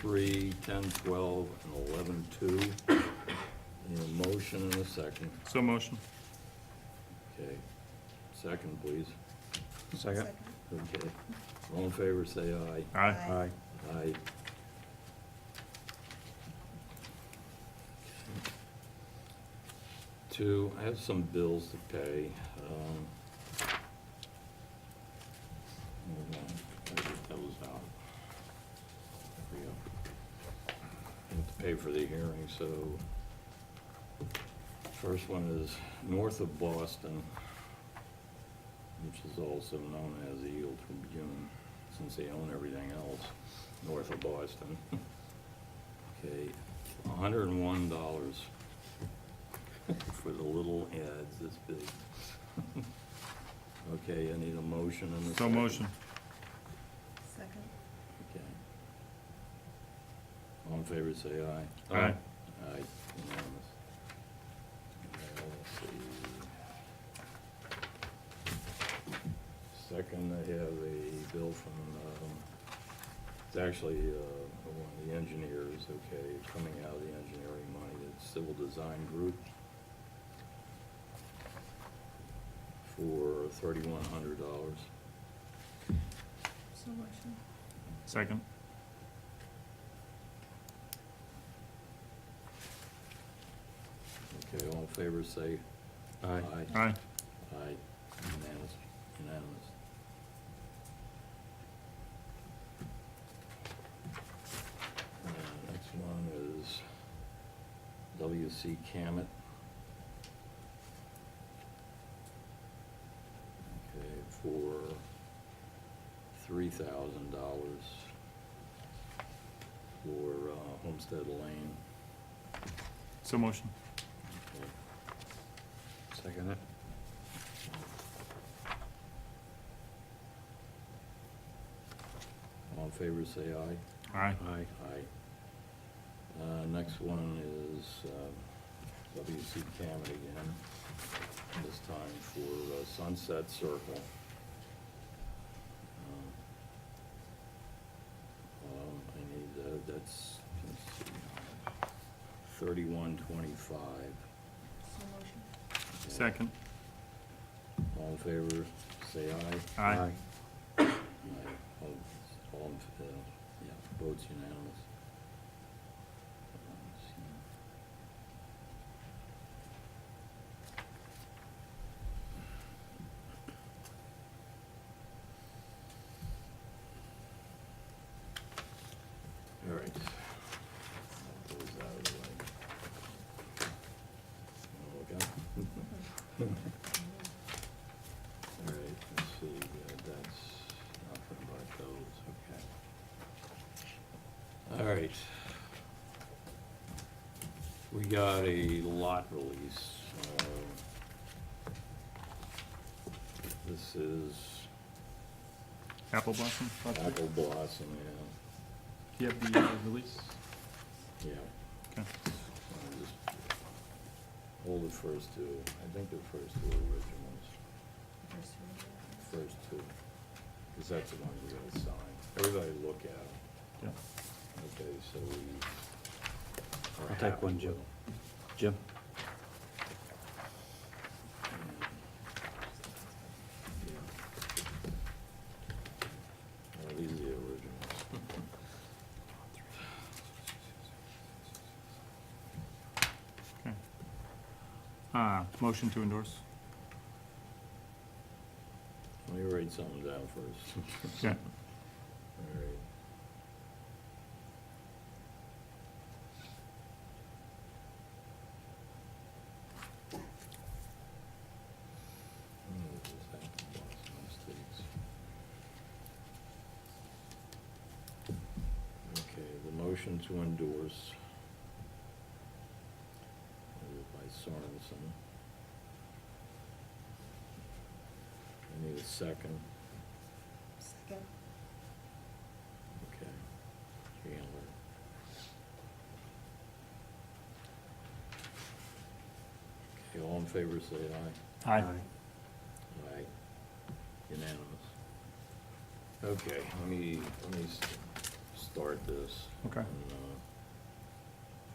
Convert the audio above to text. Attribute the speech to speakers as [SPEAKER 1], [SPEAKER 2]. [SPEAKER 1] three, ten, twelve, and eleven, two. Need a motion and a second,
[SPEAKER 2] So motion.
[SPEAKER 1] okay. Second, please.
[SPEAKER 3] Second.
[SPEAKER 1] Okay. All in favor, say aye.
[SPEAKER 2] Aye.
[SPEAKER 3] Aye.
[SPEAKER 1] Aye. Two, I have some bills to pay. um, hold on, I get those out. There we go. I Have to pay for the hearing, so first one is north of Boston, which is also known as the Eagle Tribune, since they own everything else north of Boston. Okay, hundred and one dollars for the little ads this big. Okay, I need a motion and a
[SPEAKER 2] So
[SPEAKER 1] second.
[SPEAKER 2] motion.
[SPEAKER 3] Second.
[SPEAKER 1] Okay. All in favor, say aye.
[SPEAKER 2] Aye.
[SPEAKER 1] Aye, unanimous. Now, let's see. Second, I have a bill from, um, it's actually, uh, one of the engineers, okay, coming out of the engineering money, it's Civil Design Group for thirty-one hundred dollars.
[SPEAKER 3] So motion.
[SPEAKER 2] Second.
[SPEAKER 1] Okay, all in favor, say
[SPEAKER 4] Aye.
[SPEAKER 1] Aye.
[SPEAKER 2] Aye.
[SPEAKER 1] Aye, unanimous, unanimous. Uh, Next one is W.C. Cammett. Okay, for three thousand dollars for uh, Homestead Lane.
[SPEAKER 2] So motion.
[SPEAKER 1] Okay.
[SPEAKER 4] Second it.
[SPEAKER 1] All in favor, say aye.
[SPEAKER 2] Aye.
[SPEAKER 4] Aye.
[SPEAKER 1] Aye. Uh, next one is, um, W.C. Cammett again, this time for uh, Sunset Circle. Um, I need, uh, that's, let's see, thirty-one twenty-five.
[SPEAKER 3] So motion.
[SPEAKER 2] Second.
[SPEAKER 1] All in favor, say aye.
[SPEAKER 2] Aye.
[SPEAKER 1] Aye. All- All, in- uh, yeah, votes unanimous. All right. That goes out of the way. Wanna Look out. All right, let's see, uh, that's nothing but those, okay. All right. We got a lot release. uh, This is
[SPEAKER 2] Apple blossom. project.
[SPEAKER 1] apple blossom,
[SPEAKER 2] Do you have the uh, release?
[SPEAKER 1] yeah, yeah.
[SPEAKER 2] Okay.
[SPEAKER 1] I'll just Hold the first two, I think the first two are originals,
[SPEAKER 3] First reading.
[SPEAKER 1] first two, because that's the ones we gotta sign. Everybody look at them.
[SPEAKER 2] Yeah.
[SPEAKER 1] Okay, so we. are
[SPEAKER 4] I'll take
[SPEAKER 1] happy
[SPEAKER 4] one,
[SPEAKER 1] with
[SPEAKER 4] Joe.
[SPEAKER 1] them.
[SPEAKER 4] Jim?
[SPEAKER 1] Yeah. Well, these are the originals.
[SPEAKER 2] Okay. Uh, motion to endorse.
[SPEAKER 1] Let me write something down first.
[SPEAKER 2] Yeah.
[SPEAKER 1] All right. Hmm, this is Apple Blossom Estates. Okay, the motion to endorse is uh, by Sorensen. I need a second.
[SPEAKER 3] Second.
[SPEAKER 1] Okay. Chandler. Okay, all in favor, say aye.
[SPEAKER 2] Aye.
[SPEAKER 1] Aye. Unanimous. Okay, let me, let me s- s- start this.
[SPEAKER 2] Okay.
[SPEAKER 1] and, uh,